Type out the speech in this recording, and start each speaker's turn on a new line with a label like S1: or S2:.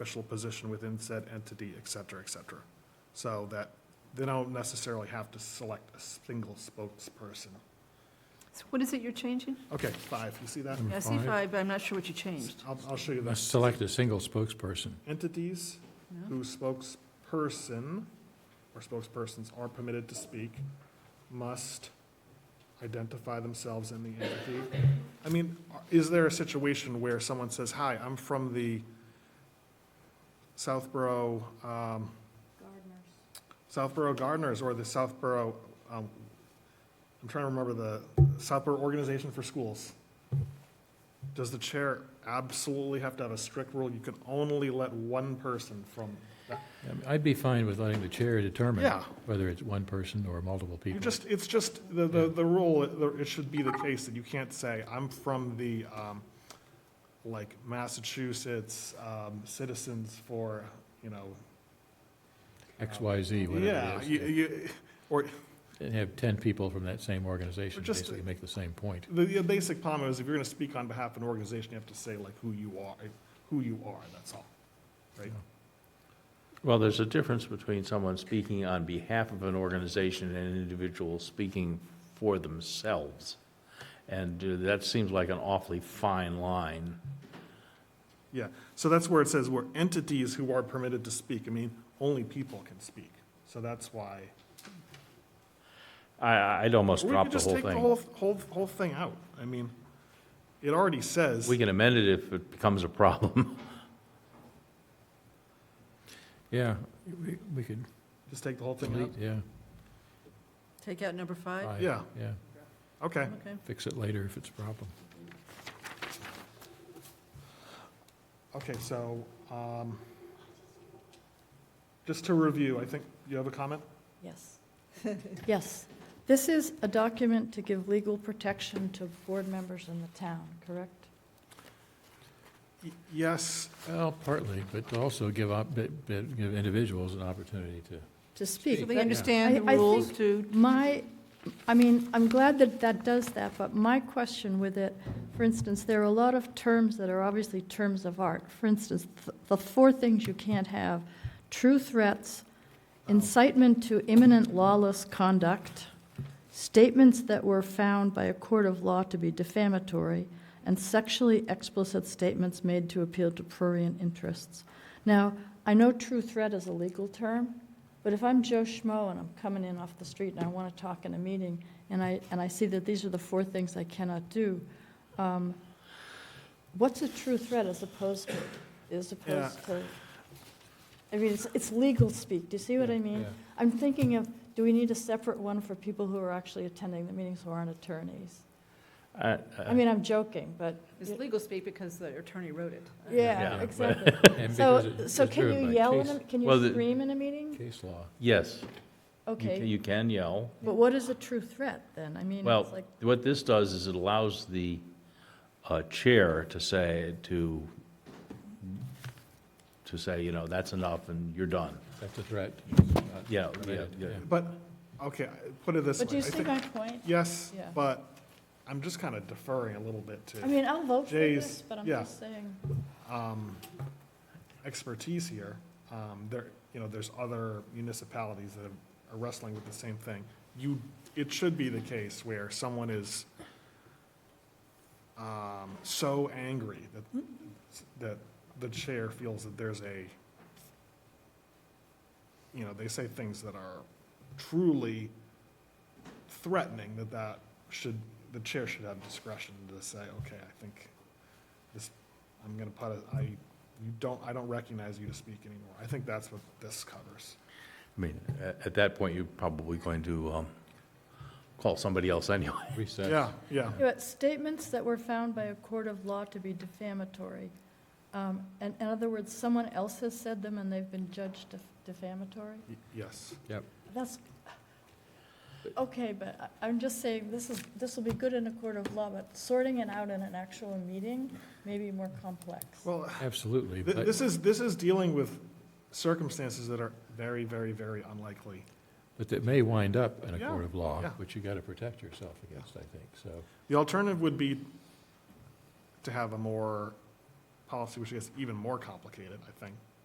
S1: official position within said entity, et cetera, et cetera. So that they don't necessarily have to select a single spokesperson.
S2: So What is it you're changing?
S1: Okay, five, you see that?
S2: Yeah, I see five, but I'm not sure what you changed.
S1: I'll, I'll show you
S3: Must
S1: that.
S3: Select a single spokesperson.
S1: Entities
S2: No?
S1: whose spokesperson or spokespersons are permitted to speak must identify themselves in the entity. I mean, is there a situation where someone says, hi, I'm from the Southborough, um, Southborough Gardeners or the Southborough, um, I'm trying to remember the Southborough Organization for Schools. Does the chair absolutely have to have a strict rule? You can only let one person from, that-
S3: I mean, I'd be fine with letting the chair determine
S1: Yeah.
S3: whether it's one person or multiple
S1: you
S3: people.
S1: just, it's just, the, the, the rule, it it should be the case that you can't say, I'm from the, um, like Massachusetts, um, Citizens for, you know.
S3: X, Y, Z,
S1: Yeah,
S3: whatever it
S1: you,
S3: is.
S1: you, or
S3: And have 10 people from that same organization
S1: Or just-
S3: basically make the same point.
S1: The, the basic comment is if you're gonna speak on behalf of an organization, you have to say like who you are, who you are, that's all, right?
S4: Well, there's a difference between someone speaking on behalf of an organization and an individual speaking for themselves. And uh, that seems like an awfully fine line.
S1: Yeah, so that's where it says we're entities who are permitted to speak. I mean, only people can speak, so that's why.
S4: I- I, I'd almost
S1: Or we
S4: drop
S1: could
S4: the
S1: just
S4: whole
S1: take the
S4: thing.
S1: whole, whole, whole thing out. I mean, it already says,
S4: We can amend it if it becomes a problem.
S3: Yeah, we- we could,
S1: just take the whole thing out.
S3: delete, yeah,
S2: Take out number five?
S3: five,
S1: Yeah.
S3: yeah.
S1: Okay,
S2: Okay.
S3: Fix it later if it's a problem.
S1: okay, so, um, just to review, I think, you have a comment?
S5: Yes. Yes. This is a document to give legal protection to board members in the town, correct?
S1: Y- Yes,
S3: Well, partly, but to also give up, but- but give individuals an opportunity to,
S2: So
S5: To speak.
S2: they
S3: Yeah.
S2: understand the
S5: I- I think-
S2: rules too?
S5: My, I mean, I'm glad that that does that, but my question with it, for instance, there are a lot of terms that are obviously terms of art. For instance, th- the four things you can't have, true threats, incitement to imminent lawless conduct, statements that were found by a court of law to be defamatory, and sexually explicit statements made to appeal to prurient interests. Now, I know true threat is a legal term, but if I'm Joe Schmo and I'm coming in off the street and I want to talk in a meeting, and I, and I see that these are the four things I cannot do, um, what's a true threat as opposed to, as opposed to? I mean, it's, it's legal speak, do you see what I mean?
S3: Yeah.
S5: I'm thinking of, do we need a separate one for people who are actually attending the meetings who aren't attorneys?
S4: I-
S5: I mean, I'm joking, but,
S6: It's legal speak because the attorney wrote it.
S5: yeah,
S4: Yeah.
S5: exactly.
S3: and because
S5: So,
S3: it-
S5: so
S3: it's
S5: can
S3: driven
S5: you
S3: by
S5: yell,
S3: case-
S5: in a- can
S4: Well, the-
S5: you scream in a meeting?
S3: Case law.
S4: Yes, you ca-
S5: Okay,
S4: you can yell.
S5: but what is a true threat, then? I mean,
S4: Well,
S5: it's like,
S4: what this does is it allows the uh, chair to say, to, to say, you know, that's enough and you're done.
S3: That's a threat.
S4: Yeah, yeah,
S3: Permitted,
S4: yeah.
S3: yeah.
S1: but, okay, put it this way.
S5: but do you
S1: I
S5: see
S1: think-
S5: my point?
S1: Yes,
S5: Yeah.
S1: but I'm just kind of deferring a little bit
S5: I
S1: to
S5: mean, I'll vote for
S1: Jay's-
S5: this, but I'm
S1: yeah.
S5: just saying,
S1: um, expertise here. Um, There, you know, there's other municipalities that are wrestling with the same thing. You, it should be the case where someone is um, so angry that, that the chair feels that there's a, you know, they say things that are truly threatening, that that should, the chair should have discretion to say, okay, I think this, I'm gonna put a, I, you don't, I don't recognize you to speak anymore. I think that's what this covers.
S4: I mean, a- at that point, you're probably going to um, call somebody else anyway.
S3: Recess.
S1: Yeah, yeah.
S5: Yeah, but statements that were found by a court of law to be defamatory. Um, And in other words, someone else has said them and they've been judged def- defamatory?
S1: Y- Yes.
S5: That's, okay, but I- I'm just saying, this is, this will be good in a court of law, but sorting it out in an actual meeting may be more complex.
S1: Well,
S3: Absolutely.
S1: th-
S3: but-
S1: this is, this is dealing with circumstances that are very, very, very unlikely.
S3: But that may wind up in a
S1: Yeah,
S3: court of law,
S1: yeah.
S3: which you got to protect yourself against, I think, so.
S1: The alternative would be to have a more policy, which gets even more complicated, I think,